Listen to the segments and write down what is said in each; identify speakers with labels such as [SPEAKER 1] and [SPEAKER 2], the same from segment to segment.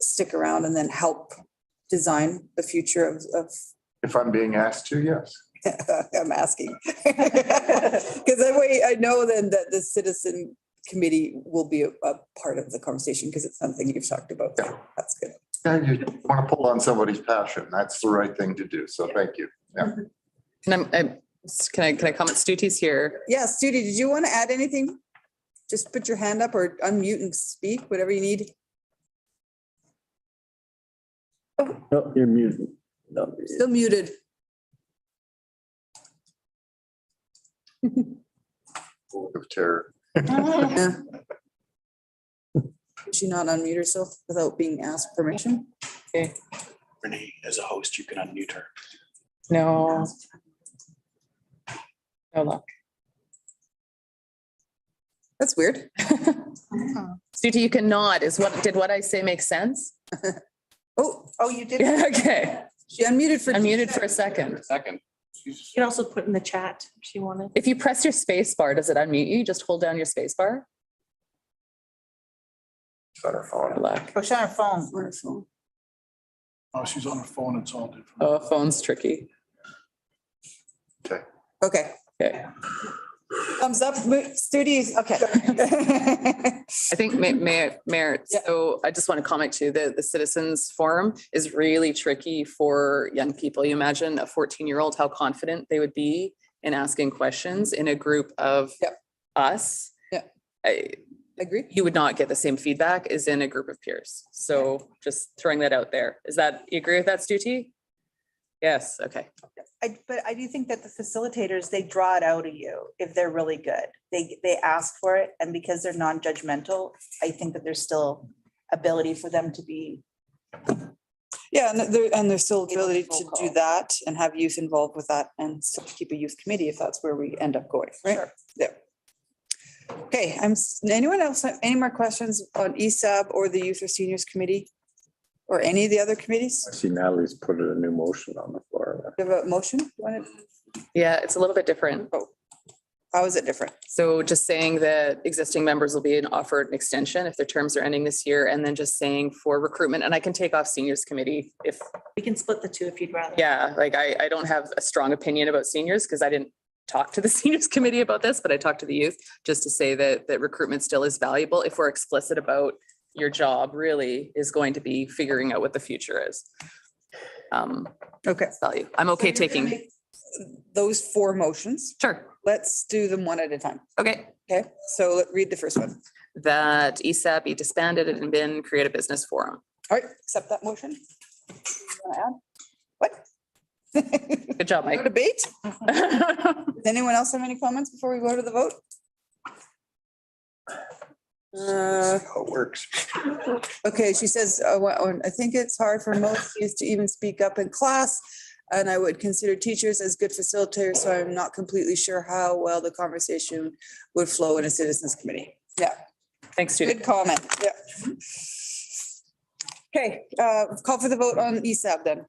[SPEAKER 1] stick around and then help design the future of, of,
[SPEAKER 2] If I'm being asked to, yes.
[SPEAKER 1] I'm asking. Because that way I know then that the citizen committee will be a, a part of the conversation because it's something you've talked about.
[SPEAKER 2] Yeah.
[SPEAKER 1] That's good.
[SPEAKER 2] Yeah, you want to pull on somebody's passion. That's the right thing to do. So thank you.
[SPEAKER 3] And I'm, I'm, can I, can I comment? Stuti's here.
[SPEAKER 1] Yeah, Studi, did you want to add anything? Just put your hand up or unmute and speak, whatever you need.
[SPEAKER 4] No, you're muted. No,
[SPEAKER 1] Still muted.
[SPEAKER 2] Of terror.
[SPEAKER 1] Yeah. Could she not unmute herself without being asked permission?
[SPEAKER 5] Renee, as a host, you can unmute her.
[SPEAKER 3] No. No luck.
[SPEAKER 1] That's weird.
[SPEAKER 3] Stuti, you can nod. Is what, did what I say make sense?
[SPEAKER 1] Oh,
[SPEAKER 6] Oh, you did.
[SPEAKER 3] Yeah, okay.
[SPEAKER 1] she unmuted for.
[SPEAKER 3] Unmuted for a second.
[SPEAKER 5] Second.
[SPEAKER 6] She'd also put in the chat if she wanted.
[SPEAKER 3] If you press your space bar, does it unmute you? Just hold down your space bar? Good luck.
[SPEAKER 6] Oh, she's on her phone.
[SPEAKER 1] Wonderful.
[SPEAKER 5] Oh, she's on her phone. It's all different.
[SPEAKER 3] Oh, phone's tricky.
[SPEAKER 1] Okay.
[SPEAKER 3] Okay.
[SPEAKER 1] Thumbs up, mo- Studi, okay.
[SPEAKER 3] I think Ma- Ma- Mayor,
[SPEAKER 1] Yeah.
[SPEAKER 3] so I just want to comment too, the, the citizens forum is really tricky for young people. You imagine a fourteen-year-old, how confident they would be in asking questions in a group of
[SPEAKER 1] Yep.
[SPEAKER 3] us.
[SPEAKER 1] Yeah.
[SPEAKER 3] I,
[SPEAKER 1] Agree?
[SPEAKER 3] you would not get the same feedback as in a group of peers. So just throwing that out there. Is that, you agree with that, Stuti? Yes, okay.
[SPEAKER 6] I, but I do think that the facilitators, they draw it out of you if they're really good. They, they ask for it and because they're non-judgmental, I think that there's still ability for them to be.
[SPEAKER 1] Yeah, and there, and there's still
[SPEAKER 6] Give them a
[SPEAKER 1] ability
[SPEAKER 6] phone
[SPEAKER 1] to do
[SPEAKER 6] call.
[SPEAKER 1] that and have youth involved with that and still keep a youth committee if that's where we end up going, right? Yeah. Okay, I'm, s- anyone else, have any more questions on E ESAB or the Youth or Seniors Committee? Or any of the other committees?
[SPEAKER 4] I see Natalie's put a new motion on the floor.
[SPEAKER 1] Do you have a motion? You want it-
[SPEAKER 3] Yeah, it's a little bit different.
[SPEAKER 1] How is it different?
[SPEAKER 3] So just saying that existing members will be offered an extension if their terms are ending this year, and then just saying for recruitment, and I can take off seniors committee if,
[SPEAKER 6] We can split the two if you'd rather.
[SPEAKER 3] yeah, like I, I don't have a strong opinion about seniors because I didn't talk to the seniors committee about this, but I talked to the youth just to say that, that recruitment still is valuable if we're explicit about your job really is going to be figuring out what the future is. Um,
[SPEAKER 1] Okay.
[SPEAKER 3] value. I'm okay taking,
[SPEAKER 1] Those four motions,
[SPEAKER 3] sure,
[SPEAKER 1] let's do them one at a time.
[SPEAKER 3] okay.
[SPEAKER 1] Okay, so let's read the first one.
[SPEAKER 3] that E ESAP be disbanded and been create a business forum.
[SPEAKER 1] All right, accept that motion. You wanna add? What?
[SPEAKER 3] Good job,
[SPEAKER 1] No
[SPEAKER 3] Mike.
[SPEAKER 1] Debate? Does anyone else have any comments before we go to the vote? Uh,
[SPEAKER 2] How it works.
[SPEAKER 1] Okay, she says, uh, wha- uh, I think it's hard for most youth to even speak up in class. And I would consider teachers as good facilitators, so I'm not completely sure how well the conversation would flow in a citizens committee. Yeah,
[SPEAKER 3] Thanks, Judy.
[SPEAKER 1] good comment. Yeah. Okay, uh, call for the vote on ESAB then.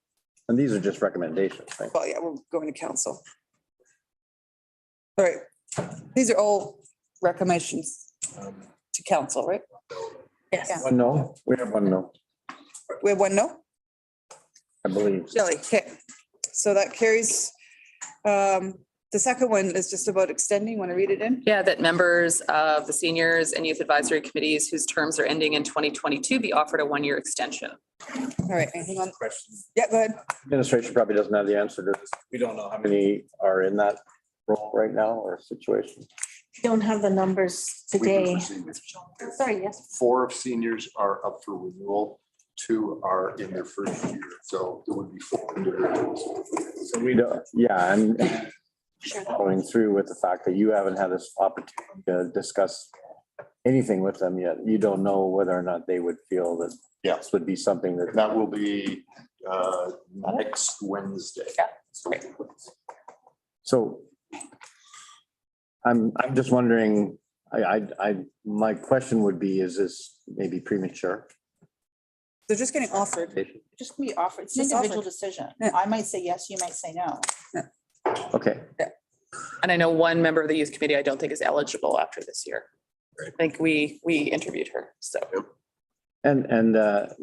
[SPEAKER 4] And these are just recommendations, right?
[SPEAKER 1] Well, yeah, we're going to council. All right, these are all recommendations
[SPEAKER 5] Um,
[SPEAKER 1] to council, right?
[SPEAKER 6] Yes.
[SPEAKER 4] One no, we have one no,
[SPEAKER 1] We have one no?
[SPEAKER 4] I believe.
[SPEAKER 1] Shelley, okay. So that carries. Um, the second one is just about extending. Want to read it in?
[SPEAKER 3] Yeah, that members of the seniors and youth advisory committees whose terms are ending in twenty twenty-two be offered a one-year extension.
[SPEAKER 1] All right, anything on?
[SPEAKER 7] question.
[SPEAKER 1] Yeah, go ahead.
[SPEAKER 4] Administration probably doesn't have the answer to this.
[SPEAKER 7] We don't know how
[SPEAKER 4] How
[SPEAKER 7] many,
[SPEAKER 4] many are in that role right now or situation?
[SPEAKER 6] Don't have the numbers
[SPEAKER 2] We do for seniors.
[SPEAKER 6] Sorry, yes.
[SPEAKER 2] Four of seniors are up for renewal. Two are in their first year. So it would be four individuals.
[SPEAKER 4] So we don't, yeah, I'm following through with the fact that you haven't had this opportunity to discuss anything with them yet. You don't know whether or not they would feel that
[SPEAKER 2] Yeah.
[SPEAKER 4] this would be something that
[SPEAKER 2] That will be uh, next Wednesday.
[SPEAKER 3] Yeah.
[SPEAKER 2] So
[SPEAKER 4] So I'm, I'm just wondering, I, I, I, my question would be, is this maybe premature?
[SPEAKER 1] They're just getting offered.
[SPEAKER 6] Just can be offered. It's an
[SPEAKER 1] Just offered.
[SPEAKER 6] individual decision.
[SPEAKER 1] Yeah.
[SPEAKER 6] I might say yes, you might say no.
[SPEAKER 4] Okay,
[SPEAKER 3] And I know one member of the youth committee I don't think is eligible after this year. I think we, we interviewed her, so.
[SPEAKER 4] and, and, uh,